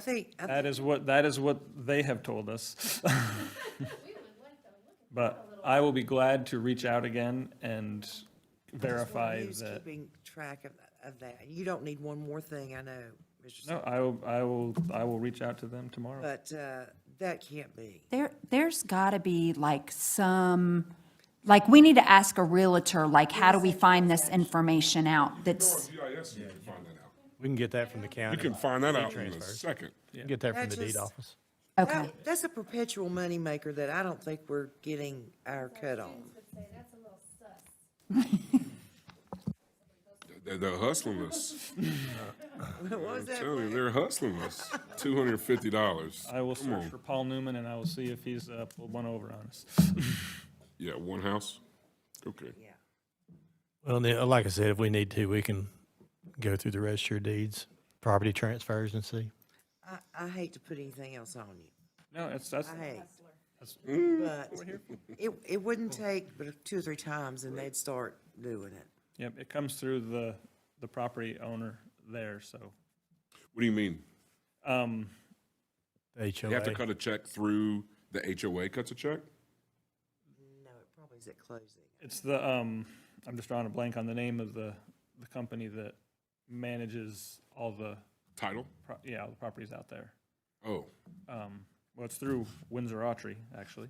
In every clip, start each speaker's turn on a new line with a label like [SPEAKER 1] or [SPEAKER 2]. [SPEAKER 1] think, I
[SPEAKER 2] That is what, that is what they have told us. But I will be glad to reach out again and verify
[SPEAKER 1] Who's
[SPEAKER 2] that.
[SPEAKER 1] keeping track of, of that? You don't need one more thing, I know, Mr.
[SPEAKER 2] No,
[SPEAKER 1] Sa-
[SPEAKER 2] I will, I will, I will reach out to them tomorrow.
[SPEAKER 1] but, uh, that can't be.
[SPEAKER 3] There, there's got to be like some, like, we need to ask a realtor, like, how do we find this information out? That's,
[SPEAKER 4] GIS, you can find that out.
[SPEAKER 5] We can get that from the
[SPEAKER 4] You
[SPEAKER 5] county,
[SPEAKER 4] can find that out in a second.
[SPEAKER 5] get that from
[SPEAKER 1] That's
[SPEAKER 5] the deed
[SPEAKER 1] just-
[SPEAKER 5] office.
[SPEAKER 3] okay,
[SPEAKER 1] That- That's a perpetual moneymaker that I don't think we're getting our cut on.
[SPEAKER 4] They- They're hustling us.
[SPEAKER 1] What was that?
[SPEAKER 4] Tell you,
[SPEAKER 1] Blaine?
[SPEAKER 4] they're hustling us. Two hundred and fifty dollars.
[SPEAKER 2] I will search for Paul Newman and I will see if he's uh, pulled one over on us.
[SPEAKER 4] Yeah, one house? Okay.
[SPEAKER 1] Yeah.
[SPEAKER 5] Well, and then, uh, like I said, if we need to, we can go through the register of deeds, property transfers and see.
[SPEAKER 1] I, I hate to put anything else on you.
[SPEAKER 2] No, it's, that's,
[SPEAKER 1] I hate. But it, it wouldn't take but two or three times and they'd start doing it.
[SPEAKER 2] yep, it comes through the, the property owner there, so.
[SPEAKER 4] What do you mean?
[SPEAKER 2] Um,
[SPEAKER 5] The
[SPEAKER 4] You have to
[SPEAKER 5] HOA.
[SPEAKER 4] cut a check through the HOA cuts a check?
[SPEAKER 1] No, it probably is at closing.
[SPEAKER 2] It's the, um, I'm just drawing a blank on the name of the, the company that manages all the,
[SPEAKER 4] Title?
[SPEAKER 2] pro- yeah, all the properties out there.
[SPEAKER 4] Oh,
[SPEAKER 2] Um, well, it's through Windsor Autry, actually.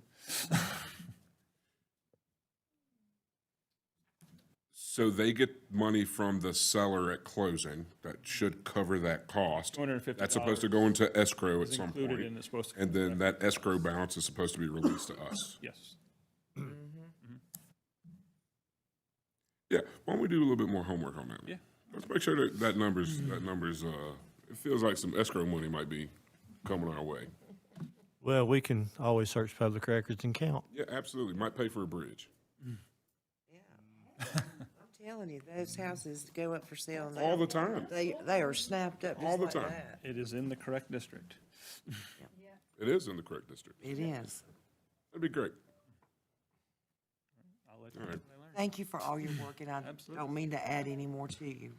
[SPEAKER 4] so they get money from the seller at closing. That should cover that cost.
[SPEAKER 2] $250.
[SPEAKER 4] That's supposed to go into escrow at
[SPEAKER 2] It's
[SPEAKER 4] some
[SPEAKER 2] included and
[SPEAKER 4] point.
[SPEAKER 2] it's supposed to.
[SPEAKER 4] And then that escrow balance is supposed to be released to us.
[SPEAKER 2] Yes.
[SPEAKER 4] Yeah, why don't we do a little bit more homework on that?
[SPEAKER 2] Yeah.
[SPEAKER 4] Let's make sure that that number's, that number's, uh, it feels like some escrow money might be coming our way.
[SPEAKER 5] Well, we can always search public records and count.
[SPEAKER 4] Yeah, absolutely, might pay for a bridge.
[SPEAKER 1] Yeah. I'm telling you, those houses go up for sale. and they
[SPEAKER 4] All the
[SPEAKER 1] don't-
[SPEAKER 4] time.
[SPEAKER 1] They, they are snapped up
[SPEAKER 4] All
[SPEAKER 1] just
[SPEAKER 4] the
[SPEAKER 1] like
[SPEAKER 4] time.
[SPEAKER 1] that.
[SPEAKER 2] It is in the correct district.
[SPEAKER 4] It is in the correct district.
[SPEAKER 1] It is.
[SPEAKER 4] That'd be great.
[SPEAKER 2] I'll let you
[SPEAKER 4] All
[SPEAKER 2] know when
[SPEAKER 4] right.
[SPEAKER 2] I learn.
[SPEAKER 1] Thank you for all your work, and I
[SPEAKER 2] Absolutely.
[SPEAKER 1] don't mean to add any more to you.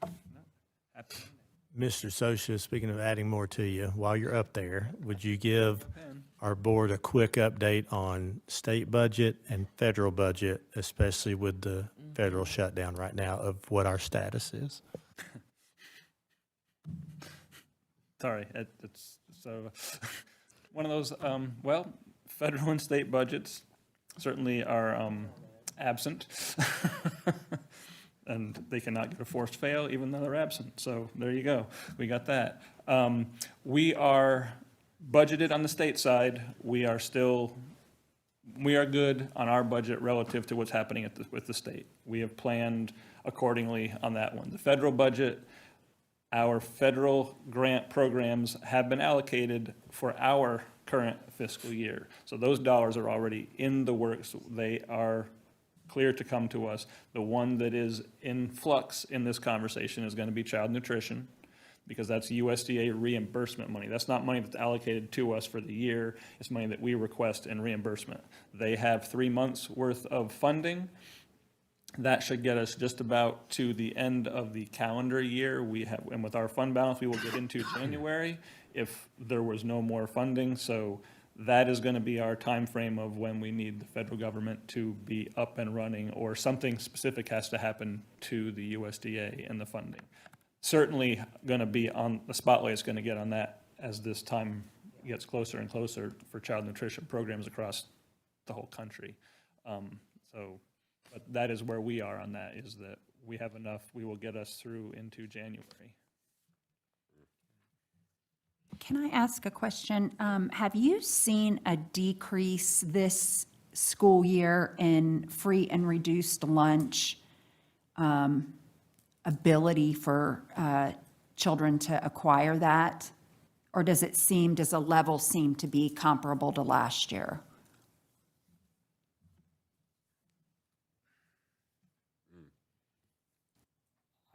[SPEAKER 2] Happy to
[SPEAKER 5] Mr. Socia, speaking of adding more to you, while you're up there, would you give our board a quick update on state budget and federal budget, especially with the
[SPEAKER 1] Mm-hmm.
[SPEAKER 5] federal shutdown right now of what our status is?
[SPEAKER 2] Sorry, it, it's so one of those. Um, well, federal and state budgets certainly are um, absent, and they cannot get a forced fail even though they're absent. So there you go. We got that. Um, we are budgeted on the state side. We are still we are good on our budget relative to what's happening at the, with the state. We have planned accordingly on that one. The federal budget, our federal grant programs have been allocated for our current fiscal year. So those dollars are already in the works. They are clear to come to us. The one that is in flux in this conversation is going to be child nutrition because that's USDA reimbursement money. That's not money that's allocated to us for the year. It's money that we request in reimbursement. They have three months' worth of funding. That should get us just about to the end of the calendar year. We have, and with our fund balance, we will get into January if there was no more funding. So that is going to be our timeframe of when we need the federal government to be up and running, or something specific has to happen to the USDA and the funding. Certainly going to be on, the spotlight's going to get on that as this time gets closer and closer for child nutrition programs across the whole country. Um, So, but that is where we are on that, is that we have enough, we will get us through into January.
[SPEAKER 3] can I ask a question? Um, have you seen a decrease this school year in free and reduced lunch, um, ability for, uh, children to acquire that? Or does it seem, does a level seem to be comparable to last year?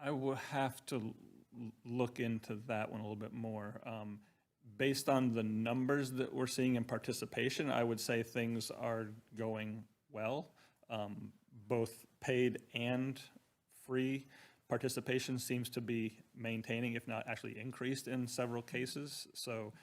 [SPEAKER 2] I will have to l- look into that one a little bit more. Um, Based on the numbers that we're seeing in participation, I would say things are going well. Um, Both paid and free participation seems to be maintaining, if not actually increased in several cases. So